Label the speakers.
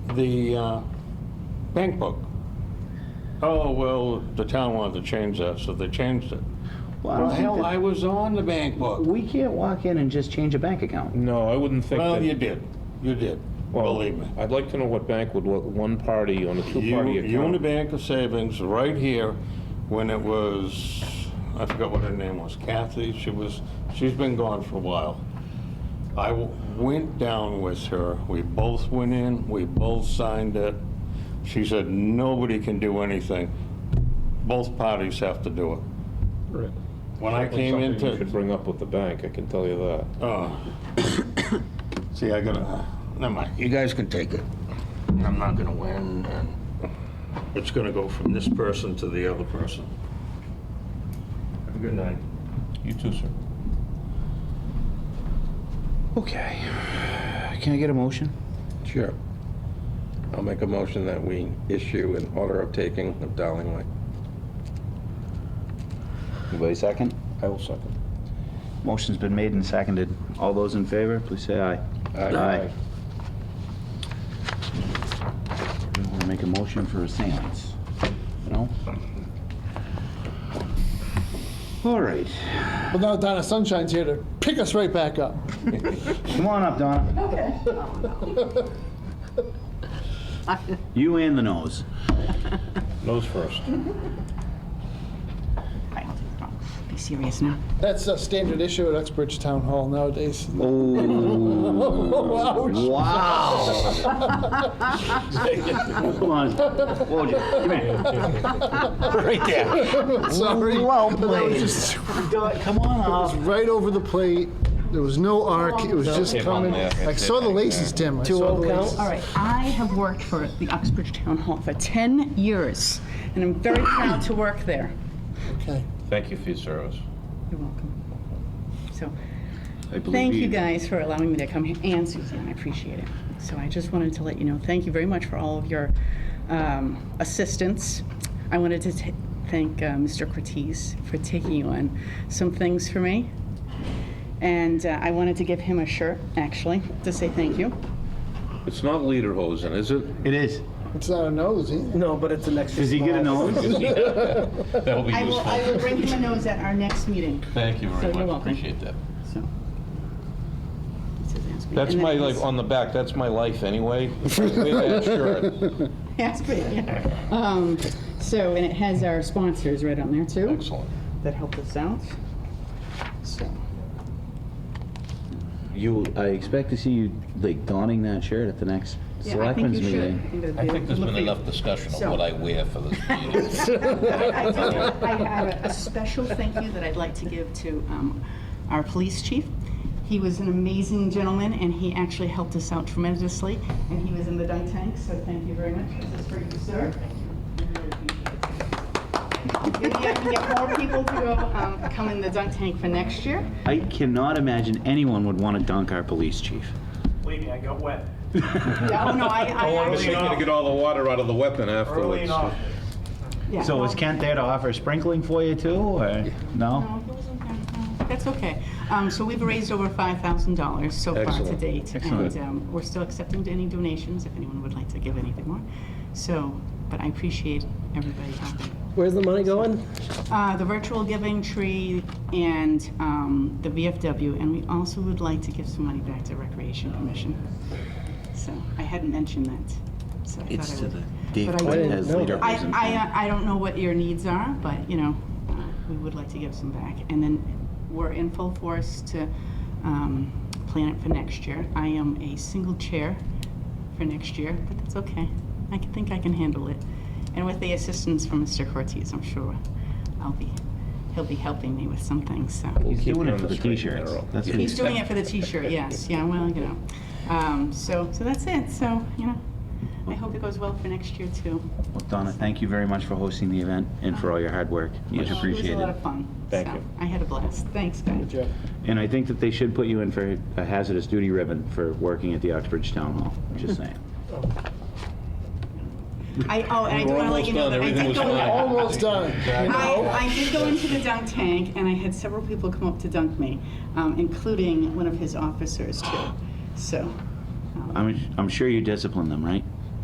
Speaker 1: the uh, bank book. Oh, well, the town wanted to change that, so they changed it.
Speaker 2: Well, I don't
Speaker 1: Well,
Speaker 2: think
Speaker 1: hell,
Speaker 2: that-
Speaker 1: I was on the bank book.
Speaker 2: We can't walk in and just change a bank account.
Speaker 3: No, I wouldn't think
Speaker 1: Well, you
Speaker 3: that.
Speaker 1: did, you did,
Speaker 3: Well,
Speaker 1: believe me.
Speaker 3: I'd like to know what bank would let one party on a
Speaker 1: You,
Speaker 3: two-party account.
Speaker 1: Unibank of Savings, right here, when it was, I forgot what her name was, Kathy, she was, she's been gone for a while. I w- went down with her, we both went in, we both signed it. She said, nobody can do anything, both parties have to do it.
Speaker 4: Right.
Speaker 1: When I came
Speaker 3: Something You
Speaker 1: into,
Speaker 3: should bring up with the bank, I can tell you that.
Speaker 1: oh. See, I gotta, uh, never mind, you guys can take it. I'm not gonna win, and it's gonna go from this person to the other person. Have a good night.
Speaker 3: You too, sir.
Speaker 2: Okay. Can I get a motion?
Speaker 5: Sure. I'll make a motion that we issue an order of taking of Darling Lake.
Speaker 2: Anybody second?
Speaker 3: I will second.
Speaker 2: Motion's been made and seconded. All those in favor, please say aye. Aye. We want to make a motion for a seance, you know? All right.
Speaker 4: Well, now Donna Sunshine's here to pick us right back up.
Speaker 2: Come on up, Donna.
Speaker 6: Okay.
Speaker 2: You and the nose.
Speaker 3: Nose first.
Speaker 6: Be serious now.
Speaker 4: That's a standard issue at Uxbridge Town Hall nowadays.
Speaker 2: Oh,
Speaker 4: Ouch.
Speaker 2: wow. Hold on. Whoa, Jim, come here. Right there.
Speaker 4: Sorry.
Speaker 2: Well
Speaker 4: But that was
Speaker 2: played.
Speaker 4: just-
Speaker 2: Come on
Speaker 4: It was
Speaker 2: up.
Speaker 4: right over the plate. There was no arc. It was just coming. I saw the laces, Tim. I saw the laces.
Speaker 6: All right, I have worked for the Uxbridge Town Hall for 10 years, and I'm very proud to work there.
Speaker 4: Okay.
Speaker 3: Thank you for your service.
Speaker 6: You're welcome. So,
Speaker 2: I believe
Speaker 6: thank you guys for allowing me to come here, and Suzanne, I appreciate it. So I just wanted to let you know, thank you very much for all of your um, assistance. I wanted to ta- thank uh, Mr. Cortez for taking on some things for me. And uh, I wanted to give him a shirt, actually, to say thank you.
Speaker 3: It's not lederhosen, is it?
Speaker 2: It is.
Speaker 4: It's not a nose either.
Speaker 7: No, but it's an extra.
Speaker 2: Does he get a
Speaker 7: small.
Speaker 2: nose?
Speaker 3: That'll be
Speaker 6: I will, I will bring him a nose at our next meeting.
Speaker 3: Thank you
Speaker 6: So you're welcome.
Speaker 3: that.
Speaker 6: So. This is Asbury.
Speaker 3: That's
Speaker 6: And
Speaker 3: my,
Speaker 6: then
Speaker 3: like,
Speaker 6: this-
Speaker 3: on the back, that's my life anyway. Wear that shirt.
Speaker 6: Asbury, yeah. Um, So, and it has our sponsors right on there too,
Speaker 3: Excellent.
Speaker 6: that helped us out. So,
Speaker 2: You, I expect to see you like donning that shirt at the next
Speaker 6: yeah, I think
Speaker 2: selectmen's
Speaker 6: you should.
Speaker 2: meeting.
Speaker 6: think it'd
Speaker 8: I
Speaker 6: be-
Speaker 8: think there's
Speaker 6: look
Speaker 8: been
Speaker 6: for you.
Speaker 8: enough discussion of
Speaker 6: So-
Speaker 8: what I wear for this meeting.
Speaker 6: I do. I have a special thank you that I'd like to give to um, our police chief. He was an amazing gentleman, and he actually helped us out tremendously, and he was in the dunk tank, so thank you very much. This is for you, sir. Maybe I can get more people to go, um, come in the dunk tank for next year.
Speaker 2: I cannot imagine anyone would want to dunk our police chief.
Speaker 9: Believe me, I got wet
Speaker 6: Oh, no, I, I actually,
Speaker 3: gonna get all the water out of the weapon
Speaker 9: early enough.
Speaker 6: yeah.
Speaker 2: So is Kent there to offer sprinkling for you too, or no?
Speaker 6: No, he wasn't there. No, That's okay. Um, So we've raised over $5,000 so far to
Speaker 3: Excellent.
Speaker 6: date.
Speaker 2: Excellent.
Speaker 6: And um, we're still accepting any donations if anyone would like to give anything more. So, but I appreciate everybody helping.
Speaker 7: Where's the money going?
Speaker 6: Uh, The virtual giving tree and um, the VFW, and we also would like to give some money back to Recreation Commission. So I hadn't mentioned that, so I thought I would.
Speaker 2: It's to the Dave
Speaker 6: But I didn't
Speaker 2: Cortez
Speaker 7: know that.
Speaker 2: leader.
Speaker 6: I, I, uh, I don't know what your needs are, but, you know, uh, we would like to give some back. And then we're in full force to um, plan it for next year. I am a single chair for next year, but that's okay. I can- think I can handle it. And with the assistance from Mr. Cortez, I'm sure I'll be, he'll be helping me with some things, so.
Speaker 2: He's
Speaker 3: keep
Speaker 2: doing it
Speaker 3: you on
Speaker 2: for
Speaker 3: the
Speaker 2: the
Speaker 3: straight and
Speaker 2: t-shirts.
Speaker 3: narrow.
Speaker 2: That's what
Speaker 6: He's doing it for the t-shirt, yes, yeah, well, you know. Um, So, so that's it, so, you know, I hope it goes well for next year, too.
Speaker 2: Well, Donna, thank you very much for hosting the event and for all your hard work. Much
Speaker 6: Well, It was a lot
Speaker 2: appreciated.
Speaker 6: of fun.
Speaker 3: Thank
Speaker 6: so
Speaker 3: you.
Speaker 6: I had a blast. Thanks, guys.
Speaker 2: And I think that they should put you in for a hazardous duty ribbon for working at the Oxbridge Town Hall, just saying.
Speaker 6: I, oh, and I
Speaker 3: We're
Speaker 6: do want to let
Speaker 3: almost
Speaker 6: you know
Speaker 3: done.
Speaker 6: that I
Speaker 3: Everything
Speaker 6: did
Speaker 3: was
Speaker 6: go, in-
Speaker 3: fine.
Speaker 4: Almost done.
Speaker 6: I, I did go into the dunk tank, and I had several people come up to dunk me, um, including one of his officers, too. So, um,
Speaker 2: I'm, I'm sure you disciplined them, right?